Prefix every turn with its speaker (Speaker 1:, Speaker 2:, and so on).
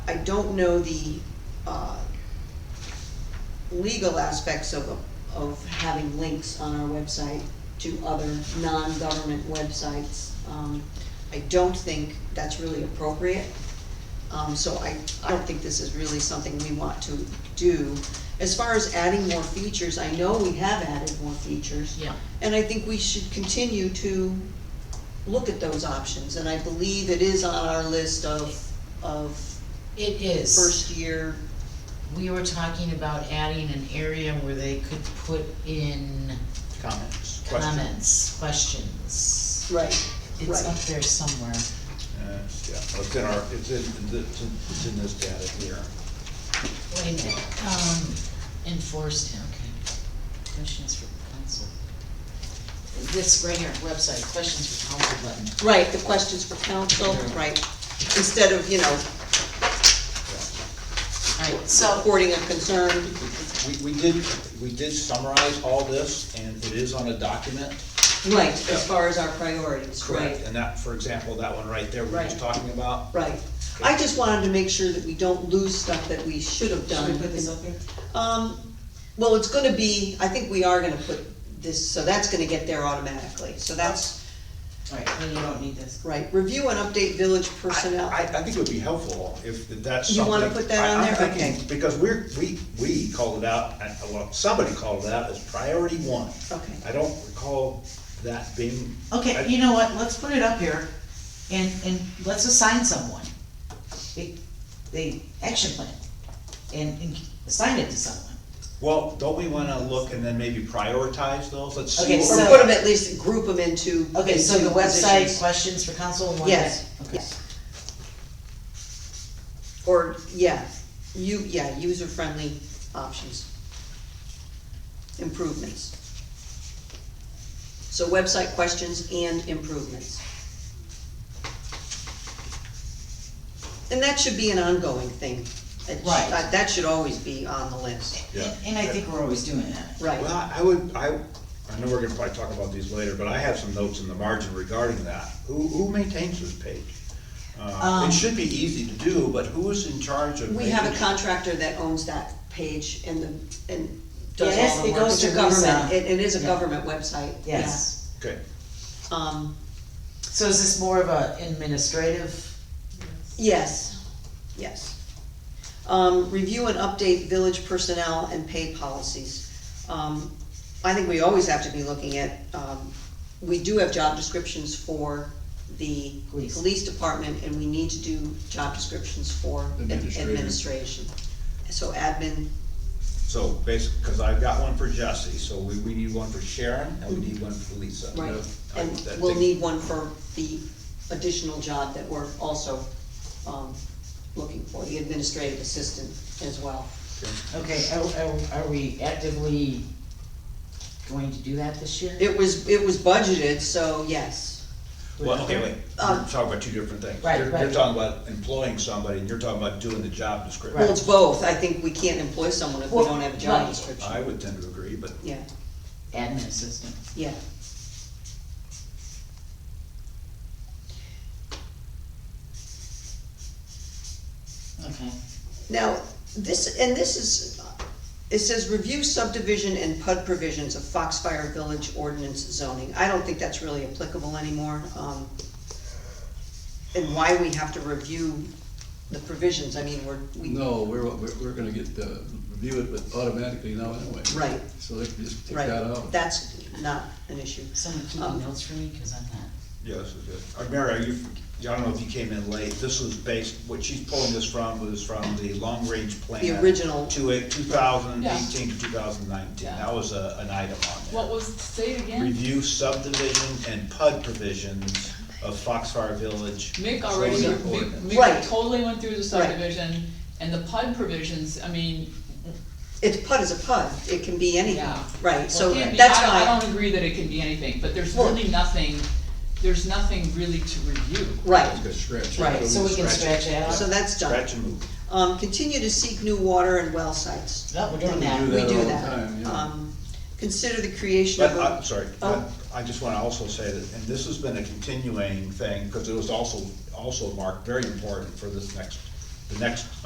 Speaker 1: don't know the, uh, legal aspects of, of having links on our website to other non-government websites. Um, I don't think that's really appropriate. Um, so I, I don't think this is really something we want to do. As far as adding more features, I know we have added more features.
Speaker 2: Yeah.
Speaker 1: And I think we should continue to look at those options, and I believe it is on our list of, of
Speaker 2: It is.
Speaker 1: first year,
Speaker 2: We were talking about adding an area where they could put in
Speaker 3: Comments? Questions?
Speaker 2: comments, questions.
Speaker 1: right,
Speaker 2: It's up
Speaker 1: right.
Speaker 2: there somewhere.
Speaker 3: Uh, Yeah, well, it's in our, it's in, the- it's in it's in this data here.
Speaker 2: Wait a minute, um, enforced, okay. Questions for council. This right here, website, questions for council button.
Speaker 1: Right, the questions for council, right, instead of, you know,
Speaker 2: Alright, so,
Speaker 1: reporting a concern,
Speaker 3: We, we did, we did summarize all this, and it is on a document.
Speaker 1: right, as far as our priorities, right.
Speaker 3: And that, for example, that one right there we were just
Speaker 1: Right.
Speaker 3: talking about.
Speaker 1: Right, I just wanted to make sure that we don't lose stuff that we should have done.
Speaker 4: Should we put this up here?
Speaker 1: Um, well, it's gonna be, I think we are gonna put this, so that's gonna get there automatically, so that's,
Speaker 4: Alright, then you don't need this.
Speaker 1: right, review and update village personnel.
Speaker 3: I, I think it would be helpful if that's
Speaker 1: You
Speaker 3: something.
Speaker 1: wanna put that
Speaker 3: I-
Speaker 1: on
Speaker 3: I'm
Speaker 1: there?
Speaker 3: thinking-
Speaker 1: Okay.
Speaker 3: Because we're, we, we called it out, uh, well, somebody called it out as priority one.
Speaker 1: Okay.
Speaker 3: I don't recall that being. I-
Speaker 2: okay, you know what, let's put it up here and, and let's assign someone. The, the action plan and, and assign it to someone.
Speaker 3: Well, don't we wanna look and then maybe prioritize those? Let's see.
Speaker 2: Okay,
Speaker 3: what
Speaker 1: Or
Speaker 2: so-
Speaker 1: put them at least, group them into.
Speaker 2: Okay, so the
Speaker 1: into
Speaker 2: website,
Speaker 1: positions.
Speaker 2: questions for council and one.
Speaker 1: Yes,
Speaker 2: Okay.
Speaker 1: yes. Or, yeah, you, yeah, user-friendly options. Improvements. So website questions and improvements. And that should be an ongoing thing. It sh-
Speaker 2: Right.
Speaker 1: uh, That should always be on the list,
Speaker 3: Yeah.
Speaker 2: And I think we're always doing that.
Speaker 1: right.
Speaker 3: Well, I would, I, I know we're gonna probably talk about these later, but I have some notes in the margin regarding that. Who, who maintains this page? Uh,
Speaker 2: Um,
Speaker 3: It should be easy to do, but who is in charge of?
Speaker 1: We have a
Speaker 3: making-
Speaker 1: contractor that owns that page and the, and does
Speaker 2: Yes,
Speaker 1: all the
Speaker 2: it
Speaker 1: work.
Speaker 2: goes
Speaker 1: It's a
Speaker 2: to
Speaker 1: government.
Speaker 2: Lisa.
Speaker 1: It, it is a
Speaker 2: Yeah.
Speaker 1: government website, yeah.
Speaker 2: Yes.
Speaker 3: Okay,
Speaker 1: Um,
Speaker 2: So is this more of a administrative?
Speaker 1: yes, yes. Um, review and update village personnel and pay policies. Um, I think we always have to be looking at, um, we do have job descriptions for the
Speaker 2: Police.
Speaker 1: police department, and we need to do job descriptions for ad-
Speaker 3: Administrative.
Speaker 1: administration. So admin,
Speaker 3: so basically, cause I've got one for Jesse, so we, we need one for Sharon, and we need one for Lisa.
Speaker 1: Right,
Speaker 3: I-
Speaker 1: and
Speaker 3: that
Speaker 1: we'll
Speaker 3: takes-
Speaker 1: need one for the additional job that we're also, um, looking for, the administrative assistant as well.
Speaker 3: okay.
Speaker 2: Okay, are, are, are we actively going to do that this year?
Speaker 1: It was, it was budgeted, so yes,
Speaker 3: Well, okay, wait,
Speaker 1: Um,
Speaker 3: we're talking about two different things.
Speaker 2: Right,
Speaker 3: You're- You're
Speaker 2: right.
Speaker 3: talking about employing somebody, and you're talking about doing the job description.
Speaker 1: well, it's both, I think we can't employ someone if we
Speaker 2: Well,
Speaker 1: don't have a job
Speaker 2: right.
Speaker 3: I
Speaker 1: description.
Speaker 3: would tend to agree, but
Speaker 1: Yeah,
Speaker 2: Admin assistant.
Speaker 1: yeah.
Speaker 2: Okay.
Speaker 1: Now, this, and this is, it says review subdivision and PUD provisions of Foxfire Village ordinance zoning. I don't think that's really applicable anymore. um, And why we have to review the provisions, I mean, we're, we,
Speaker 5: No, we're, we're, we're gonna get, uh, review it with automatically now anyway.
Speaker 1: Right.
Speaker 5: So they can just take that
Speaker 1: right,
Speaker 5: out.
Speaker 1: that's not an issue.
Speaker 2: Someone
Speaker 1: Um,
Speaker 2: keeping notes for me, cause I'm not.
Speaker 3: Yeah, this is good. Uh, Mary, are you, I don't know if you came in late, this was based, what she's pulling this from was from the long-range plan.
Speaker 1: The original.
Speaker 3: To a, two thousand
Speaker 6: Yeah.
Speaker 3: eighteen to two thousand nineteen,
Speaker 6: Yeah.
Speaker 3: that was a, an item on
Speaker 6: What was, say it
Speaker 3: there.
Speaker 6: again?
Speaker 3: Review subdivision and PUD provisions of Foxfire Village.
Speaker 6: Mick already,
Speaker 3: zoning
Speaker 6: Mick
Speaker 3: ordinance.
Speaker 1: Right.
Speaker 6: Mick totally went through the
Speaker 1: Right.
Speaker 6: subdivision, and the PUD provisions, I mean,
Speaker 1: It's PUD is a PUD, it can be anything,
Speaker 6: Yeah.
Speaker 1: right, so
Speaker 6: well, it can be-
Speaker 1: that's
Speaker 6: I don't- I
Speaker 1: why,
Speaker 6: don't agree that it can be anything, but there's
Speaker 1: Well-
Speaker 6: really nothing, there's nothing really to review.
Speaker 1: right,
Speaker 5: It's gonna scratch. it.
Speaker 1: Right,
Speaker 2: So we can stretch it
Speaker 1: so
Speaker 2: out?
Speaker 1: that's done.
Speaker 3: Scratch and move.
Speaker 1: Um, continue to seek new water and well sites.
Speaker 2: No, we're doing
Speaker 5: We
Speaker 2: that.
Speaker 5: do
Speaker 1: We
Speaker 5: that
Speaker 1: do
Speaker 5: all the
Speaker 1: that.
Speaker 5: time, yeah.
Speaker 1: Um, Consider the creation of
Speaker 3: But,
Speaker 1: a.
Speaker 3: I'm sorry, but
Speaker 1: Oh.
Speaker 3: I just wanna also say that, and this has been a continuing thing, cause it was also, also marked very important for this next, the next